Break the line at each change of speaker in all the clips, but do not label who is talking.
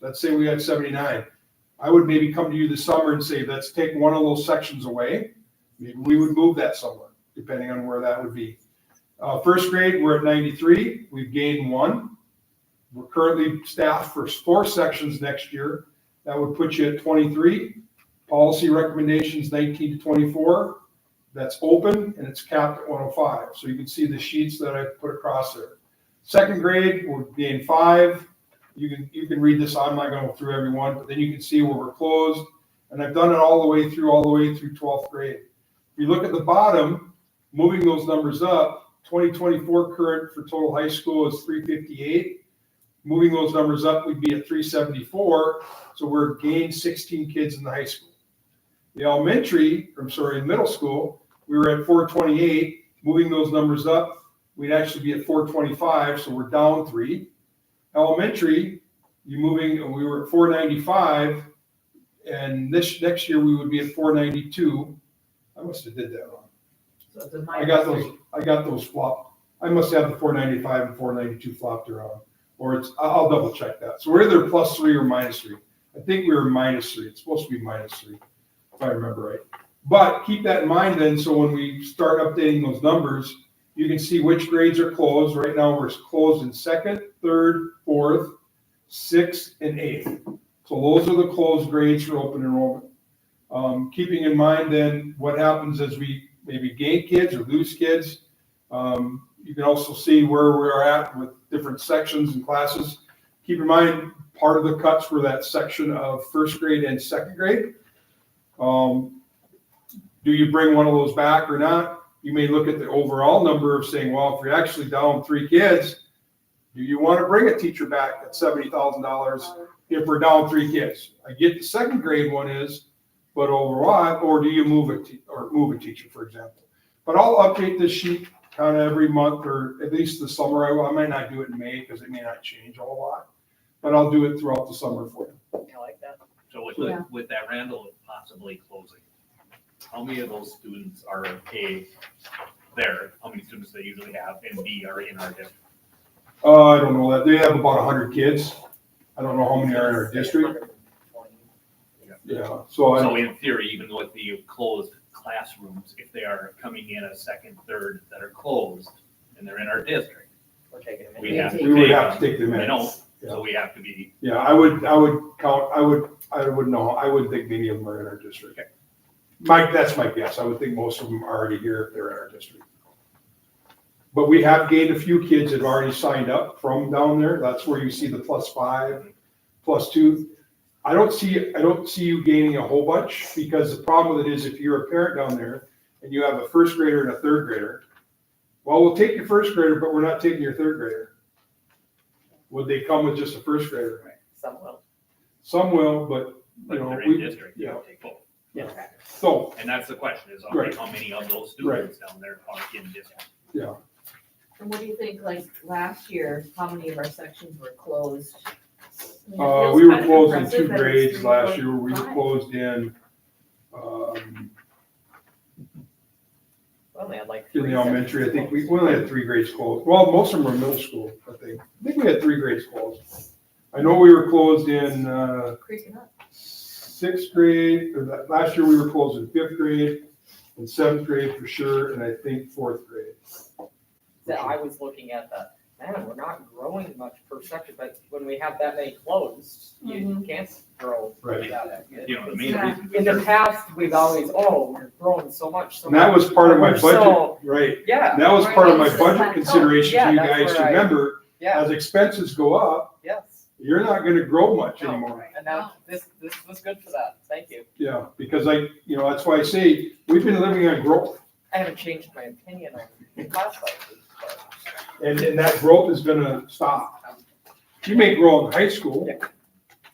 let's say we had seventy-nine. I would maybe come to you this summer and say, let's take one of those sections away. Maybe we would move that somewhere, depending on where that would be. Uh, first grade, we're at ninety-three, we've gained one. We're currently staffed for four sections next year. That would put you at twenty-three. Policy recommendations nineteen to twenty-four. That's open and it's capped at one oh five. So you can see the sheets that I put across there. Second grade, we're gain five. You can, you can read this, I'm not gonna go through every one, but then you can see where we're closed. And I've done it all the way through, all the way through twelfth grade. If you look at the bottom, moving those numbers up, twenty twenty-four current for total high school is three fifty-eight. Moving those numbers up, we'd be at three seventy-four, so we're gained sixteen kids in the high school. The elementary, I'm sorry, middle school, we were at four twenty-eight, moving those numbers up, we'd actually be at four twenty-five, so we're down three. Elementary, you moving, we were at four ninety-five, and this, next year, we would be at four ninety-two. I must have did that wrong.
So it's a
I
minus
got
three.
those, I got those flopped. I must have the four ninety-five and four ninety-two flopped around, or it's, I- I'll double check that. So we're either plus three or minus three. I think we were minus three. It's supposed to be minus three, if I remember right. But keep that in mind then, so when we start updating those numbers, you can see which grades are closed. Right now, we're closed in second, third, fourth, sixth, and eighth. So those are the closed grades for open enrollment. Um, keeping in mind then what happens as we maybe gain kids or lose kids. Um, you can also see where we're at with different sections and classes. Keep in mind, part of the cuts were that section of first grade and second grade. Um, do you bring one of those back or not? You may look at the overall number of saying, well, if you're actually down three kids, do you want to bring a teacher back at seventy thousand dollars if we're down three kids? I get the second grade one is, but overall, or do you move a, te- or move a teacher, for example? But I'll update this sheet kind of every month or at least the summer. I, will. I might not do it in May because it may not change a whole lot. But I'll do it throughout the summer for you.
I like that.
So with,
Yeah.
with that Randall possibly closing, how many of those students are A, there, how many students they usually have, and B, are in our district?
Uh, I don't know that. They have about hundred kids. I don't know how many are in our district. Yeah, so
So
I,
in theory, even with the closed classrooms, if they are coming in a second, third that are closed, and they're in our district,
We're taking a
we
minute.
have to
we would
take
have
them.
to take them
They
in.
don't, so we have to be,
Yeah, I would, I would count, I would, I would know, I would think many of them are in our district. Mike, that's my guess. I would think most of them are already here if they're in our district. But we have gained a few kids that have already signed up from down there. That's where you see the plus five, plus two. I don't see, I don't see you gaining a whole bunch because the problem with it is if you're a parent down there and you have a first grader and a third grader, well, we'll take your first grader, but we're not taking your third grader. Would they come with just a first grader?
Some will.
Some will, but,
but
you know,
they're in
we,
district, you
yeah.
take both.
Yeah.
so,
And that's the question, is
Right.
how many of those students down there are in district?
And what do you think, like, last year, how many of our sections were closed?
uh, we were closed in two grades last year, we were closed in, um,
We only had like.
in
three
the elementary, I think we,
sections
we only had three grades closed, well, most of them were middle school, I think, I think we had three grades closed. I know we were closed in, uh,
Creeping up.
sixth grade, or that, last year we were closed in fifth grade, and seventh grade for sure, and I think fourth grade.
That I was looking at the, man, we're not growing much per section, but when we have that many closed, you
Mhm.
can't grow.
Right.
that much.
You know, the main
Yeah.
reason. we
In the
serve-
past, we've always, oh, we're growing so much, so
And that
much.
was part of my budget,
So-
right,
Yeah,
that was part of my
Right, so it's
budget
plateaued.
consideration
Yeah,
to you
that's
guys to
where I-
remember,
yeah,
as expenses go up,
yes.
you're not gonna grow much
No.
anymore.
And now this, this was good for that. Thank you.
Yeah, because I, you know, that's why I say, we've been living on growth,
I haven't changed my opinion on class sizes, but.
and, and that growth is gonna stop. You may grow in high school,
Yeah.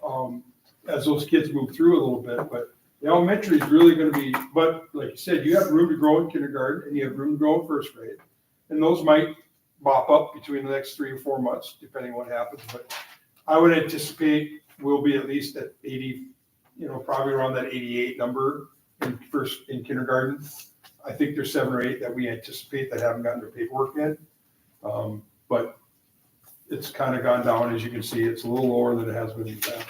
um, as those kids move through a little bit, but the elementary is really gonna be, but like you said, you have room to grow in kindergarten, and you have room to grow in first grade. And those might mop up between the next three or four months, depending what happens, but I would anticipate we'll be at least at eighty, you know, probably around that eighty-eight number in first, in kindergarten. I think there's seven or eight that we anticipate that haven't gotten their paperwork yet. Um, but it's kind of gone down, as you can see, it's a little lower than it has been in the past.